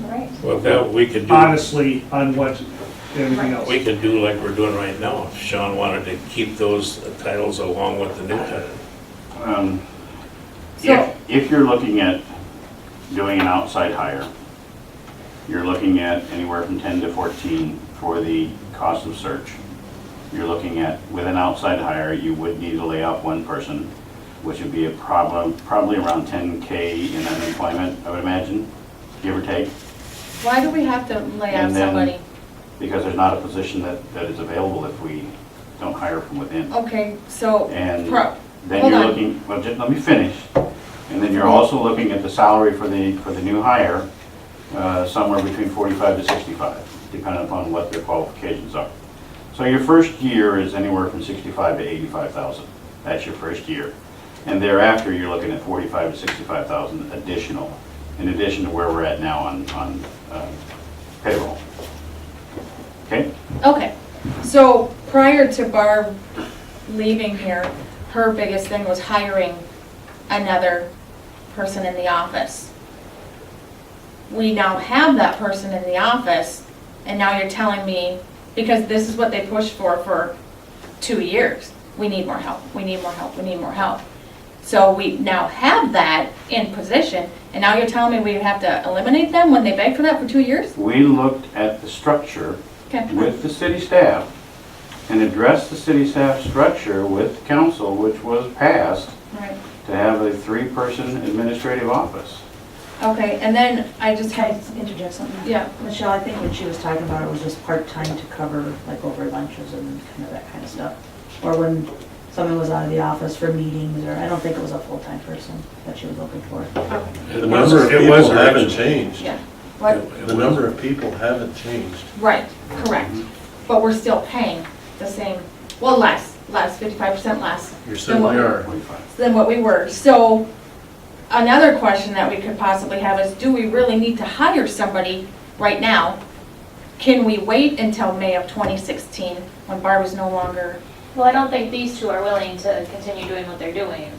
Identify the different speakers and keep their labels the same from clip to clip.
Speaker 1: right.
Speaker 2: Well, that, we could do,
Speaker 3: honestly on what, everything else.
Speaker 2: we could do like we're doing right now, if Sean wanted to keep those titles along with the new title.
Speaker 4: Um,
Speaker 1: So-
Speaker 4: If, if you're looking at doing an outside hire, you're looking at anywhere from 10 to 14 for the cost of search. You're looking at, with an outside hire, you would need to lay off one person, which would be a problem, probably around 10K in unemployment, I would imagine, give or take,
Speaker 1: Why do we have to lay off
Speaker 4: And then-
Speaker 1: somebody?
Speaker 4: because there's not a position that, that is available if we don't hire from within.
Speaker 1: Okay, so,
Speaker 4: And
Speaker 1: pro-
Speaker 4: then
Speaker 1: Hold
Speaker 4: you're
Speaker 1: on.
Speaker 4: looking, well, just let me finish. And then you're also looking at the salary for the, for the new hire, uh, somewhere between 45 to 65, depending upon what their qualifications are. So your first year is anywhere from 65 to 85,000. That's your first year. And thereafter, you're looking at 45 to 65,000 additional, in addition to where we're at now on, on uh, payroll. Okay?
Speaker 1: okay. So prior to Barb leaving here, her biggest thing was hiring another person in the office. We now have that person in the office, and now you're telling me, because this is what they pushed for for two years, we need more help, we need more help, we need more help. So we now have that in position, and now you're telling me we have to eliminate them when they begged for that for two years?
Speaker 4: We looked at the structure
Speaker 1: Okay.
Speaker 4: with the city staff and address the city staff structure with council, which was passed
Speaker 1: Right,
Speaker 4: to have a three-person administrative office.
Speaker 1: okay, and then I just
Speaker 5: Can I
Speaker 1: had,
Speaker 5: just interject something?
Speaker 1: yeah,
Speaker 5: Michelle, I think what she was talking about it was just part-time to cover like over lunches and kind of that kind of stuff. Or when someone was out of the office for meetings, or I don't think it was a full-time person that she was looking for.
Speaker 6: The number of
Speaker 2: It was
Speaker 6: people haven't
Speaker 2: original.
Speaker 6: changed.
Speaker 1: yeah, what,
Speaker 6: The number of people haven't changed.
Speaker 1: right, correct. But we're still paying the same, well, less, less, fifty-five percent less
Speaker 6: You
Speaker 1: than what
Speaker 6: certainly
Speaker 1: we
Speaker 6: are.
Speaker 1: than what we were. So another question that we could possibly have is, do we really need to hire somebody right now? Can we wait until May of 2016 when Barb is no longer?
Speaker 7: Well, I don't think these two are willing to continue doing what they're doing.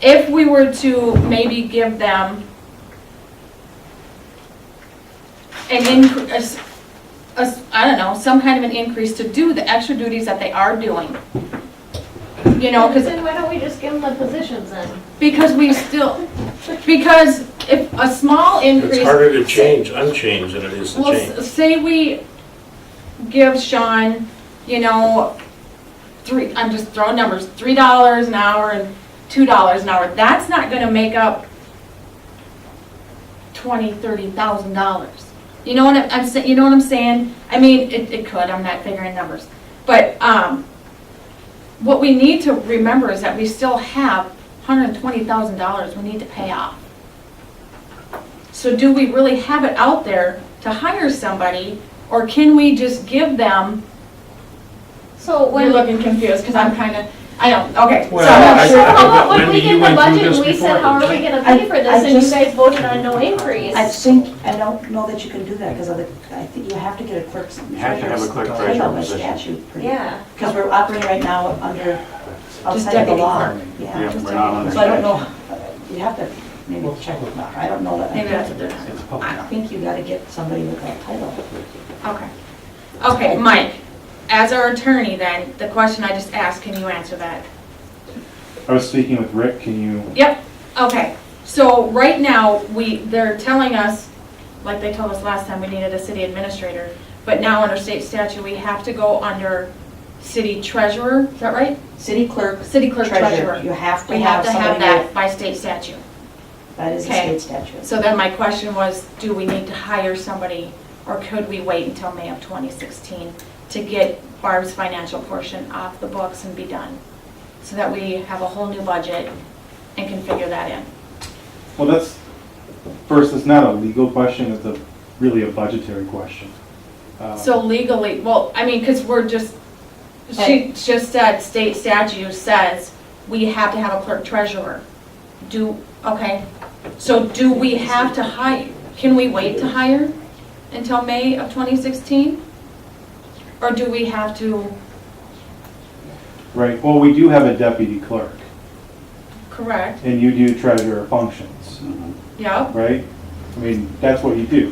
Speaker 1: If we were to maybe give them an increase, I don't know, some kind of an increase to do the extra duties that they are doing. You know, because
Speaker 7: Then why don't we just give them the positions then?
Speaker 1: Because we still, because if a small increase.
Speaker 2: It's harder to change unchanged than it is to
Speaker 1: Well,
Speaker 2: change.
Speaker 1: s- say we give Sean, you know, three, I'm just throwing numbers, three dollars an hour and two dollars an hour. That's not gonna make up twenty, thirty thousand dollars. You know what I'm, I'm saying, you know what I'm saying? I mean, it, it could, I'm not figuring numbers. But, um, what we need to remember is that we still have hundred and twenty thousand dollars we need to pay off. So do we really have it out there to hire somebody, or can we just give them?
Speaker 7: So when,
Speaker 1: We're looking confused, because I'm kind of, I don't, okay, so.
Speaker 6: Well, I- I-
Speaker 7: how about when
Speaker 6: Wendy,
Speaker 7: we
Speaker 6: you
Speaker 7: did the
Speaker 6: went through
Speaker 7: budget,
Speaker 6: this
Speaker 7: and we
Speaker 6: before,
Speaker 7: said, how are we
Speaker 6: didn't
Speaker 7: gonna pay for
Speaker 5: I-
Speaker 7: this,
Speaker 5: I
Speaker 7: and you
Speaker 5: just-
Speaker 7: guys voted on no increase?
Speaker 5: I think, I don't know that you can do that, because I think you have to get a clerk's.
Speaker 4: You have to have a clerk
Speaker 5: treasurer's
Speaker 4: treasurer
Speaker 5: title by
Speaker 4: position.
Speaker 5: statute.
Speaker 7: Yeah.
Speaker 5: Because we're operating right now under, outside of the
Speaker 1: deputy
Speaker 5: law.
Speaker 1: clerk.
Speaker 5: Yeah.
Speaker 4: Yeah, we're not on
Speaker 5: So I don't know, you have to maybe check with Mar, I don't know that.
Speaker 1: Maybe that's what they're doing.
Speaker 5: I think you gotta get somebody with that title.
Speaker 1: Okay. Okay, Mike, as our attorney then, the question I just asked, can you answer that?
Speaker 8: I was speaking with Rick, can you,
Speaker 1: Yep, okay. So right now, we, they're telling us, like they told us last time, we needed a city administrator. But now under state statute, we have to go under city treasurer, is that right?
Speaker 5: City clerk,
Speaker 1: City clerk
Speaker 5: treasurer, you
Speaker 1: treasurer.
Speaker 5: have to
Speaker 1: We have
Speaker 5: have
Speaker 1: to have
Speaker 5: somebody
Speaker 1: that
Speaker 5: with,
Speaker 1: by state statute.
Speaker 5: that is a
Speaker 1: Okay.
Speaker 5: state statute.
Speaker 1: So then my question was, do we need to hire somebody, or could we wait until May of 2016 to get Barb's financial portion off the books and be done? So that we have a whole new budget and can figure that in?
Speaker 8: well, that's, first, it's not a legal question, it's a, really a budgetary question. Uh,
Speaker 1: So legally, well, I mean, because we're just, she just said, state statute says we have to have a clerk treasurer. Do, okay, so do we have to hire, can we wait to hire until May of 2016? Or do we have to,
Speaker 8: Right, well, we do have a deputy clerk,
Speaker 1: correct,
Speaker 8: and you do treasurer functions,
Speaker 4: Mhm.
Speaker 1: yeah?
Speaker 8: right? I mean, that's what you do.